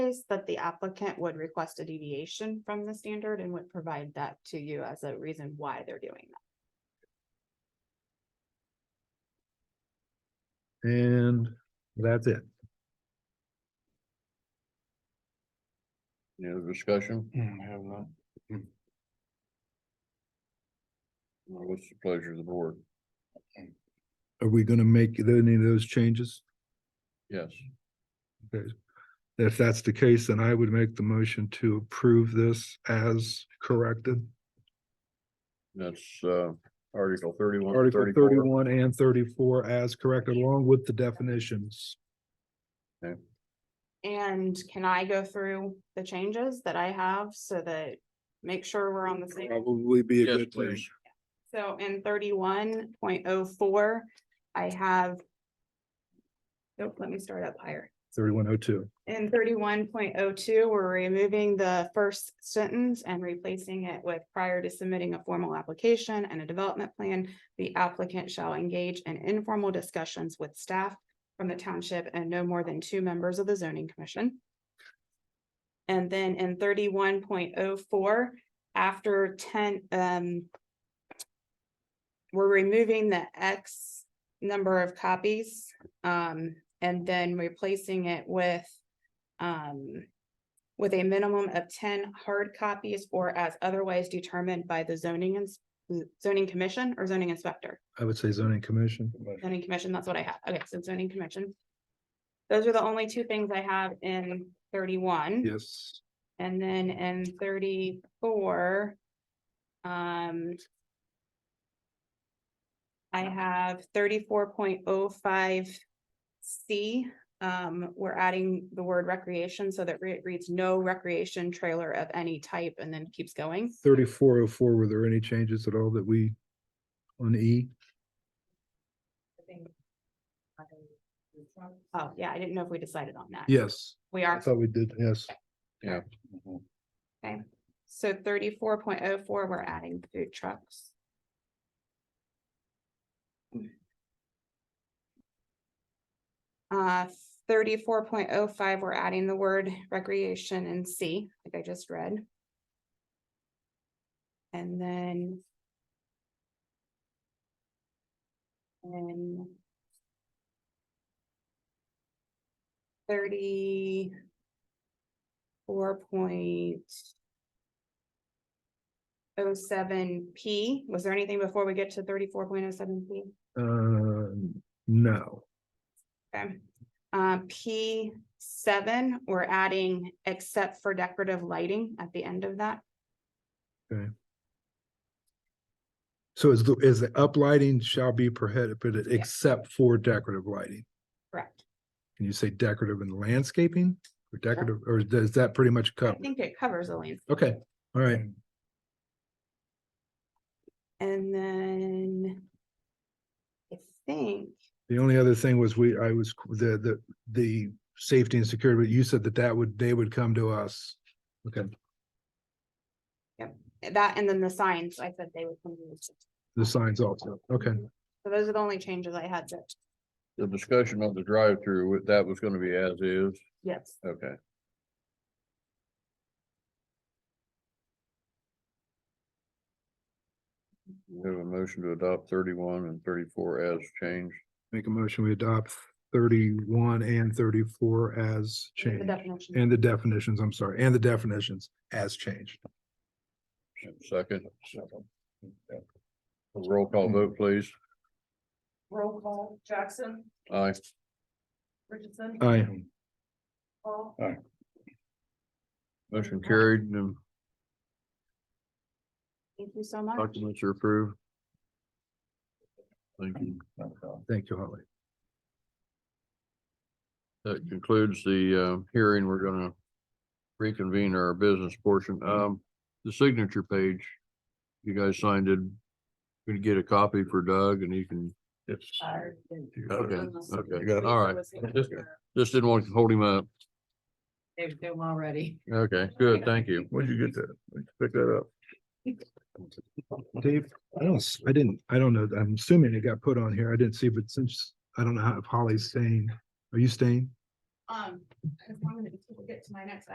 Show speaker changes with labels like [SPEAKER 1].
[SPEAKER 1] place that the applicant would request a deviation from the standard and would provide that to you as a reason why they're doing that.
[SPEAKER 2] And that's it.
[SPEAKER 3] Any other discussion?
[SPEAKER 2] Hmm, have not.
[SPEAKER 3] Or What's the pleasure of the board?
[SPEAKER 2] Are we gonna make any of those changes?
[SPEAKER 3] Yes,
[SPEAKER 2] Okay. If that's the case, then I would make the motion to approve this as corrected.
[SPEAKER 3] that's uh Article thirty-one,
[SPEAKER 2] Article
[SPEAKER 3] thirty-four.
[SPEAKER 2] thirty-one and thirty-four as corrected, along with the definitions.
[SPEAKER 1] And can I go through the changes that I have so that make sure we're on the same?
[SPEAKER 2] Probably be a
[SPEAKER 3] Yes,
[SPEAKER 2] good thing.
[SPEAKER 3] please.
[SPEAKER 1] So in thirty-one point oh four, I have. Nope, let me start up higher.
[SPEAKER 2] Thirty-one oh two.
[SPEAKER 1] In thirty-one point oh two, we're removing the first sentence and replacing it with prior to submitting a formal application and a development plan. The applicant shall engage in informal discussions with staff from the township and no more than two members of the zoning commission. And then in thirty-one point oh four, after ten, um. We're removing the X number of copies, um, and then replacing it with um, with a minimum of ten hard copies or as otherwise determined by the zoning ins- zoning commission or zoning inspector.
[SPEAKER 2] I would say zoning commission.
[SPEAKER 1] Zoning commission, that's what I have. Okay, so zoning commission. Those are the only two things I have in thirty-one.
[SPEAKER 2] Yes.
[SPEAKER 1] And then in thirty-four, um. I have thirty-four point oh five C, um, we're adding the word recreation so that it reads no recreation trailer of any type and then keeps going.
[SPEAKER 2] Thirty-four oh four, were there any changes at all that we on E?
[SPEAKER 1] Oh, yeah, I didn't know if we decided on that.
[SPEAKER 2] Yes,
[SPEAKER 1] We
[SPEAKER 2] I
[SPEAKER 1] are,
[SPEAKER 2] thought we did, yes.
[SPEAKER 3] Yeah.
[SPEAKER 2] Mm-hmm.
[SPEAKER 1] so thirty-four point oh four, we're adding food trucks. Uh, thirty-four point oh five, we're adding the word recreation and C, like I just read. And then. And. Thirty-four point oh seven P, was there anything before we get to thirty-four point oh seven P?
[SPEAKER 2] Uh, no,
[SPEAKER 1] Okay, um, P seven, we're adding except for decorative lighting at the end of that.
[SPEAKER 2] so is the, is the uplighting shall be prohibited
[SPEAKER 1] Yeah.
[SPEAKER 2] except for decorative lighting?
[SPEAKER 1] Correct.
[SPEAKER 2] Can you say decorative and landscaping or decorative, or does that pretty much
[SPEAKER 1] I
[SPEAKER 2] cover?
[SPEAKER 1] think Mm. it covers the landscape.
[SPEAKER 2] Okay, all right,
[SPEAKER 1] And then I think,
[SPEAKER 2] the only other thing was we, I was, the, the, the safety and security, but you said that that would, they would come to us. Okay,
[SPEAKER 1] that and then the signs, I said they would come. to us.
[SPEAKER 2] the signs also, okay.
[SPEAKER 1] So those are the only changes I had to,
[SPEAKER 3] The discussion of the drive-through, that was gonna be as is,
[SPEAKER 1] yes.
[SPEAKER 3] okay. We have a motion to adopt thirty-one and thirty-four as changed.
[SPEAKER 2] Make a motion, we adopt thirty-one and thirty-four as
[SPEAKER 1] the
[SPEAKER 2] changed,
[SPEAKER 1] definition.
[SPEAKER 2] and the definitions, I'm sorry, and the definitions as changed.
[SPEAKER 3] Second. A Roll call
[SPEAKER 2] Hmm.
[SPEAKER 3] vote, please.
[SPEAKER 4] Roll call, Jackson,
[SPEAKER 3] Aye.
[SPEAKER 4] Richardson.
[SPEAKER 3] Uh,
[SPEAKER 2] Aye.
[SPEAKER 4] Paul,
[SPEAKER 3] Motion carried and
[SPEAKER 1] Thank you so much.
[SPEAKER 3] documents are approved. Thank you.
[SPEAKER 2] Thank you, Holly.
[SPEAKER 3] That concludes the uh hearing. We're gonna reconvene our business portion. Um, the signature page. You guys signed it. We can get a copy for Doug and he can,
[SPEAKER 2] Yes.
[SPEAKER 1] Uh,
[SPEAKER 4] Tyler.
[SPEAKER 3] okay,
[SPEAKER 4] Unless-
[SPEAKER 3] okay, all right. Just-
[SPEAKER 4] They're
[SPEAKER 3] Just didn't want to hold him up.
[SPEAKER 4] doing already.
[SPEAKER 3] Okay, good, thank you.
[SPEAKER 2] Where'd you get that? Pick that up. Dave, I don't, s- I didn't, I don't know, I'm assuming it got put on here, I didn't see, but since, I don't know how if Holly's staying, are you staying?
[SPEAKER 1] Um, as long as we get to my next